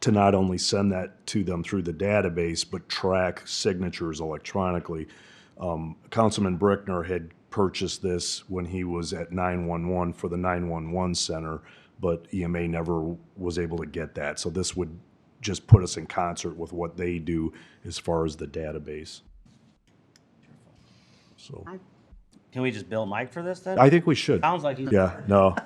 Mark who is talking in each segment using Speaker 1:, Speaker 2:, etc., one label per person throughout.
Speaker 1: to not only send that to them through the database, but track signatures electronically. Um, Councilman Brickner had purchased this when he was at 911 for the 911 center, but EMA never was able to get that. So this would just put us in concert with what they do as far as the database. So
Speaker 2: Can we just bill Mike for this then?
Speaker 1: I think we should.
Speaker 2: Sounds like he's.
Speaker 1: Yeah, no.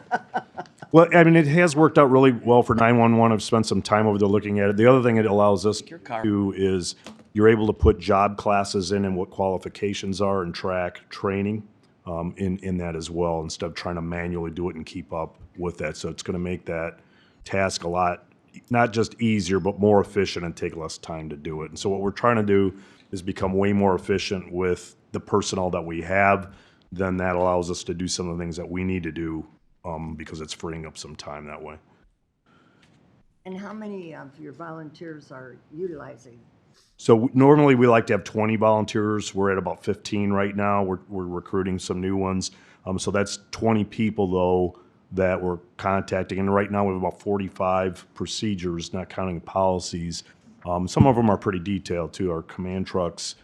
Speaker 1: Well, I mean, it has worked out really well for 911. I've spent some time over there looking at it. The other thing it allows us to do is you're able to put job classes in and what qualifications are and track training um, in, in that as well, instead of trying to manually do it and keep up with that. So it's going to make that task a lot, not just easier, but more efficient and take less time to do it. And so what we're trying to do is become way more efficient with the personnel that we have. Then that allows us to do some of the things that we need to do um, because it's freeing up some time that way.
Speaker 3: And how many of your volunteers are utilizing?
Speaker 1: So w- normally we like to have 20 volunteers. We're at about 15 right now. We're, we're recruiting some new ones. Um, so that's 20 people though that we're contacting. And right now we have about 45 procedures, not counting policies. Um, some of them are pretty detailed too. Our command trucks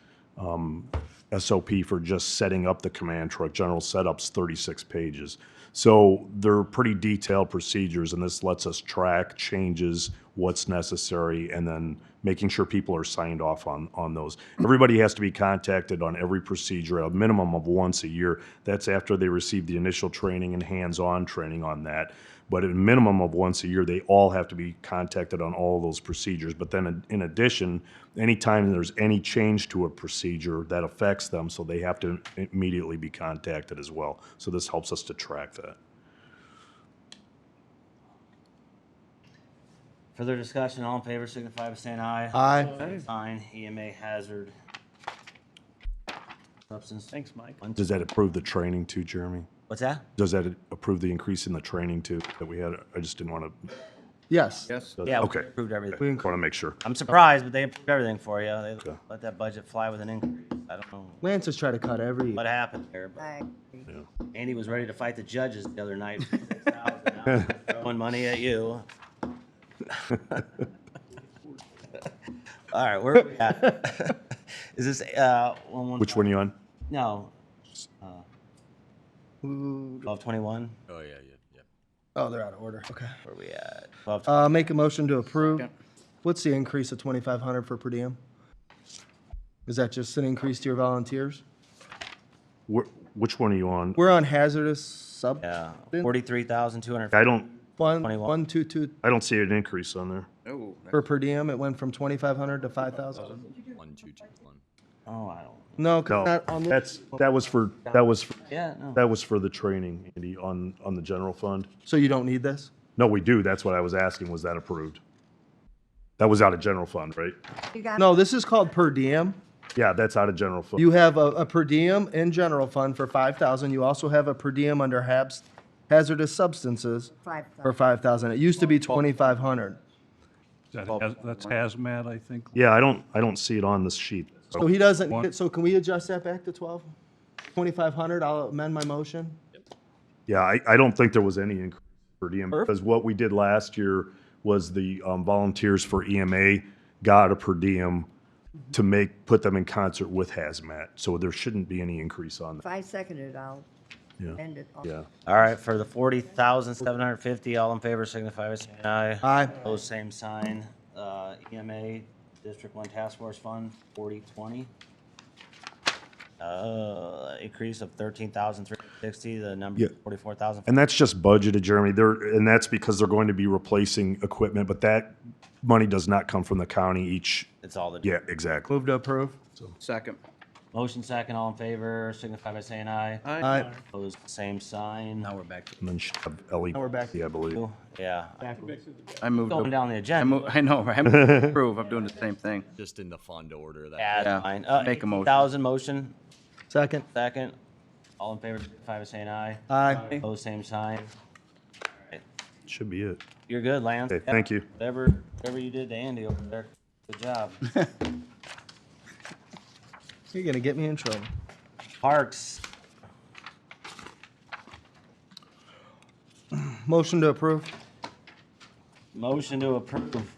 Speaker 1: SOP for just setting up the command truck, general setup's 36 pages. So they're pretty detailed procedures, and this lets us track changes, what's necessary, and then making sure people are signed off on, on those. Everybody has to be contacted on every procedure, a minimum of once a year. That's after they receive the initial training and hands-on training on that. But at a minimum of once a year, they all have to be contacted on all those procedures. But then in- in addition, anytime there's any change to a procedure that affects them, so they have to immediately be contacted as well. So this helps us to track that.
Speaker 2: Further discussion, all in favor signify by saying aye.
Speaker 4: Aye.
Speaker 2: Fine, EMA hazard. Substance. Thanks, Mike.
Speaker 1: Does that approve the training too, Jeremy?
Speaker 2: What's that?
Speaker 1: Does that approve the increase in the training too that we had? I just didn't want to,
Speaker 4: Yes.
Speaker 5: Yes.
Speaker 2: Yeah, we
Speaker 1: Okay.
Speaker 2: approved everything.
Speaker 1: want to make sure.
Speaker 2: I'm surprised, but they approved everything for you. They let that budget fly with an increase. I don't know
Speaker 4: Lance has tried to cut every.
Speaker 2: what happened there, but
Speaker 3: I-
Speaker 2: Andy was ready to fight the judges the other night. for $6,000, Throwing money at you. All right, where are we at? Is this, uh, one, one?
Speaker 1: Which one are you on?
Speaker 2: No,
Speaker 4: Ooh.
Speaker 2: twelve twenty-one.
Speaker 5: Oh, yeah, yeah, yeah.
Speaker 4: Oh, they're out of order. Okay.
Speaker 2: Where we at? Twelve.
Speaker 4: Uh, make a motion to approve. What's the increase of twenty-five hundred for per diem? Is that just an increase to your volunteers?
Speaker 1: Wh- Which one are you on?
Speaker 4: We're on hazardous sub.
Speaker 2: yeah, forty-three thousand two hundred.
Speaker 1: I don't,
Speaker 4: One,
Speaker 2: 21.
Speaker 4: one, two, two,
Speaker 1: I don't see an increase on there.
Speaker 5: Oh.
Speaker 4: for per diem. It went from twenty-five hundred to five thousand.
Speaker 5: One, two, two, one.
Speaker 2: Oh, I don't.
Speaker 4: No, 'cause
Speaker 1: No,
Speaker 4: not on the,
Speaker 1: that's, that was for, that was, for-
Speaker 2: Yeah, no.
Speaker 1: that was for the training, Andy, on, on the general fund.
Speaker 4: so you don't need this?
Speaker 1: No, we do. That's what I was asking. Was that approved? That was out of general fund, right?
Speaker 3: You got,
Speaker 4: No, this is called per diem.
Speaker 1: Yeah, that's out of general fund.
Speaker 4: You have a, a per diem in general fund for five thousand. You also have a per diem under HABs, hazardous substances
Speaker 3: Five
Speaker 4: for five thousand. It used to be twenty-five hundred.
Speaker 6: That has- That's hazmat, I think.
Speaker 1: Yeah, I don't, I don't see it on this sheet.
Speaker 4: So Oh, he doesn't, need it. so can we adjust that back to twelve? Twenty-five hundred, I'll amend my motion.
Speaker 1: Yeah, I, I don't think there was any increase per diem
Speaker 4: Perfect.
Speaker 1: because what we did last year was the um, volunteers for EMA got a per diem to make, put them in concert with hazmat. So there shouldn't be any increase on
Speaker 3: if I second it, I'll
Speaker 1: that. Yeah.
Speaker 3: end it. all.
Speaker 1: Yeah.
Speaker 2: All right, for the forty thousand seven hundred fifty, all in favor signify by saying aye.
Speaker 4: Aye.
Speaker 2: Opposed, same sign. Uh, EMA, District One Task Force Fund, forty twenty. Uh, increase of thirteen thousand three hundred sixty, the number
Speaker 1: Yeah.
Speaker 2: forty-four thousand.
Speaker 1: And that's just budgeted, Jeremy. They're, and that's because they're going to be replacing equipment, but that money does not come from the county each.
Speaker 2: It's all the.
Speaker 1: Yeah, exactly.
Speaker 4: Move to approve.
Speaker 5: Second.
Speaker 2: Motion second, all in favor signify by saying aye.
Speaker 4: Aye.
Speaker 2: Opposed, same sign.
Speaker 5: Now we're back to.
Speaker 1: And then she- LE.
Speaker 4: Now we're back.
Speaker 1: Yeah, I believe.
Speaker 2: Yeah,
Speaker 5: I moved.
Speaker 2: going down the
Speaker 5: I
Speaker 2: agenda.
Speaker 5: mo- I know, right? I moved to approve. I'm doing the same thing.
Speaker 7: just in the fund order. That
Speaker 2: Yeah,
Speaker 5: Yeah,
Speaker 2: that's fine. Uh,
Speaker 5: make a motion.
Speaker 2: Thousand motion,
Speaker 4: Second.
Speaker 2: second. All in favor, signify by saying aye.
Speaker 4: Aye.
Speaker 2: Opposed, same sign.
Speaker 1: Should be it.
Speaker 2: You're good, Lance.
Speaker 1: Okay,
Speaker 2: Yeah,
Speaker 1: thank you.
Speaker 2: Whatever, whatever you did to Andy over there, good job.
Speaker 4: You're gonna get me in trouble.
Speaker 2: Parks,
Speaker 4: Motion to approve.
Speaker 2: motion to approve.